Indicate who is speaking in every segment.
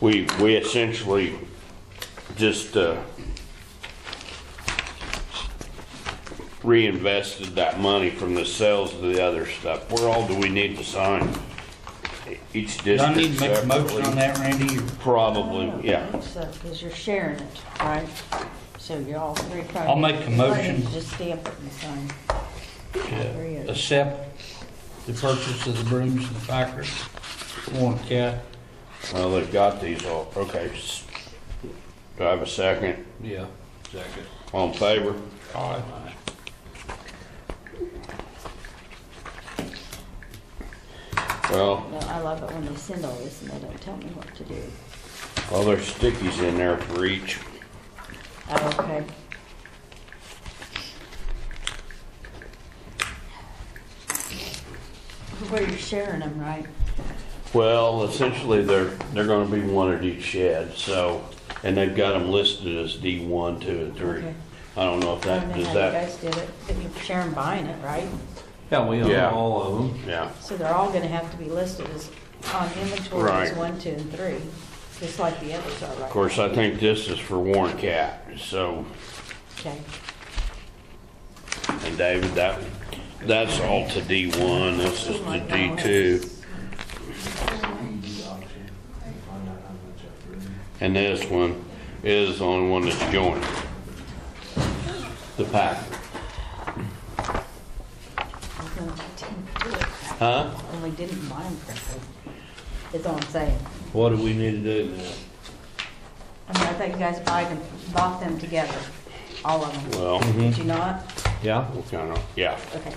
Speaker 1: we, we essentially just, uh, reinvested that money from the sales to the other stuff. Where all do we need to sign? Each district
Speaker 2: Do I need to make a motion
Speaker 1: separately?
Speaker 2: on that, Randy?
Speaker 1: Probably,
Speaker 3: I
Speaker 1: yeah.
Speaker 3: think so, because uh, you're sharing it, right? So you all three probably.
Speaker 2: I'll make a motion.
Speaker 3: Just stamp it and sign.
Speaker 2: to Accept the purchase of the brooms and packers, one cat.
Speaker 1: Well, they've got these all, okay. s- Do I have a second?
Speaker 2: Yeah. Second.
Speaker 1: All in favor?
Speaker 2: Aye.
Speaker 1: Well,
Speaker 3: No, I love it when they send all this and they don't tell me what to do.
Speaker 1: well, there's stickies in there for each.
Speaker 3: Oh, okay. Where you're sharing them, right?
Speaker 1: Well, essentially, they're, they're gonna be one at each shed, so, and they've got them listed as D one, two, and three.
Speaker 3: Okay.
Speaker 1: I don't know if
Speaker 3: I
Speaker 1: that,
Speaker 3: don't know
Speaker 1: does
Speaker 3: how you
Speaker 1: that,
Speaker 3: guys did it, but you're sharing buying it, right?
Speaker 4: Yeah, we
Speaker 1: Yeah.
Speaker 4: own all of them.
Speaker 1: yeah,
Speaker 3: So they're all gonna have to be listed as, on inventory as
Speaker 1: Right.
Speaker 3: one, two, and three, just like the others are, right?
Speaker 1: of course, I think this is for Warren Cat, so,
Speaker 3: Okay.
Speaker 1: and David, that, that's all to D one, this is to D two, and this one is the only one that's joined. The pack,
Speaker 3: Only didn't do it.
Speaker 1: huh?
Speaker 3: Only didn't buy them correctly, is all I'm saying.
Speaker 1: What do we need to do now?
Speaker 3: I mean, I think you guys buy them, bought them together, all of them.
Speaker 1: Well, mm-hmm.
Speaker 3: Did you not?
Speaker 4: Yeah.
Speaker 1: we kind of, yeah.
Speaker 3: Okay.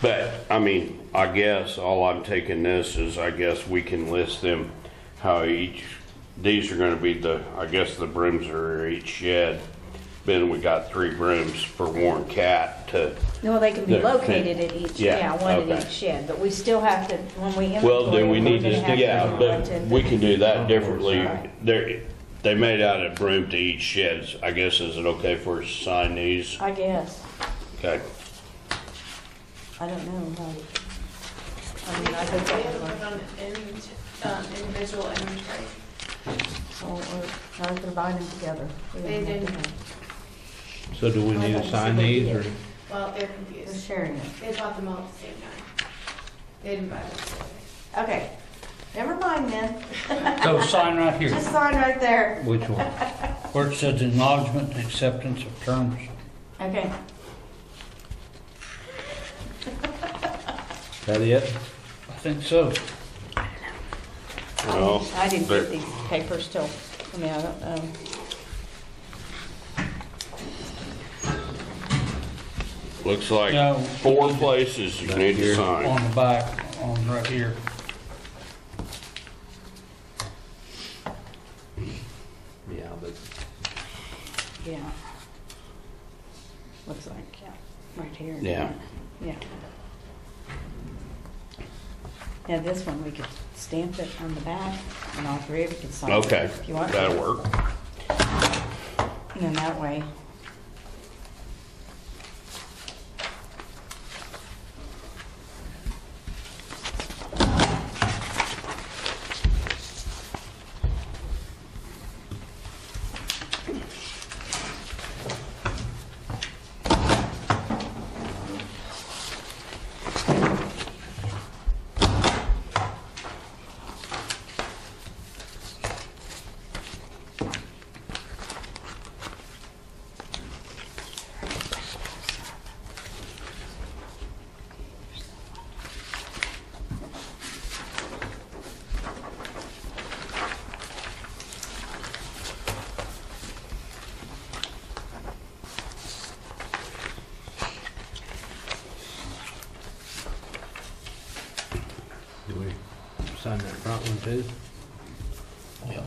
Speaker 1: But, I mean, I guess all I'm taking this is, I guess we can list them how each, these are gonna be the, I guess the brooms are each shed. Then we got three brooms for Warren Cat to,
Speaker 3: No, they can be
Speaker 1: They're-
Speaker 3: located at each,
Speaker 1: Yeah,
Speaker 3: yeah, one
Speaker 1: okay.
Speaker 3: at each shed, but we still have to, when we inventory.
Speaker 1: well, do we
Speaker 3: we're
Speaker 1: need
Speaker 3: gonna
Speaker 1: to,
Speaker 3: have
Speaker 1: yeah,
Speaker 3: do one, two,
Speaker 1: but
Speaker 3: and
Speaker 1: we
Speaker 3: three.
Speaker 1: can do
Speaker 3: Oh,
Speaker 1: that differently.
Speaker 3: Alright.
Speaker 1: They're, they made out a broom to each shed, I guess, is it okay if we sign these?
Speaker 3: I guess,
Speaker 1: Okay,
Speaker 3: I don't know, no. I mean, I think that
Speaker 5: We
Speaker 3: would
Speaker 5: have to
Speaker 3: work.
Speaker 5: put on invent- um, individual inventory.
Speaker 3: So, or, no, they're buying them together. We don't
Speaker 5: They
Speaker 3: have to
Speaker 5: didn't.
Speaker 3: have-
Speaker 4: So do we need to sign these or?
Speaker 5: Well, they're
Speaker 3: They're
Speaker 5: confused.
Speaker 3: sharing it.
Speaker 5: They bought them all at the same time. They didn't buy them together.
Speaker 3: Okay, never mind then,
Speaker 2: So sign right here.
Speaker 3: just sign right there.
Speaker 4: Which one?
Speaker 2: Where it says acknowledgement and acceptance of terms.
Speaker 3: Okay,
Speaker 4: That it?
Speaker 2: I think so.
Speaker 3: I
Speaker 1: Well,
Speaker 3: didn't- I didn't
Speaker 1: there-
Speaker 3: get these papers till, I mean, I don't, um,
Speaker 1: looks like
Speaker 2: No.
Speaker 1: four places you need to sign.
Speaker 2: On the back, on right here.
Speaker 4: Yeah, but
Speaker 3: yeah. Looks like, yeah, right here.
Speaker 1: Yeah.
Speaker 3: Yeah. Yeah, this one, we could stamp it on the back, and all three of you could sign it
Speaker 1: Okay,
Speaker 3: if you want.
Speaker 1: that'll work.
Speaker 3: And then that way.
Speaker 4: do we sign that front one too?
Speaker 2: Yeah.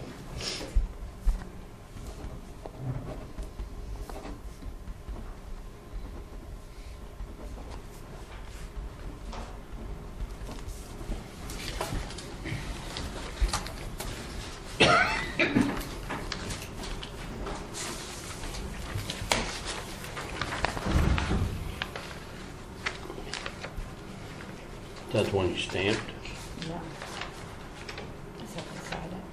Speaker 1: That's when you stamped.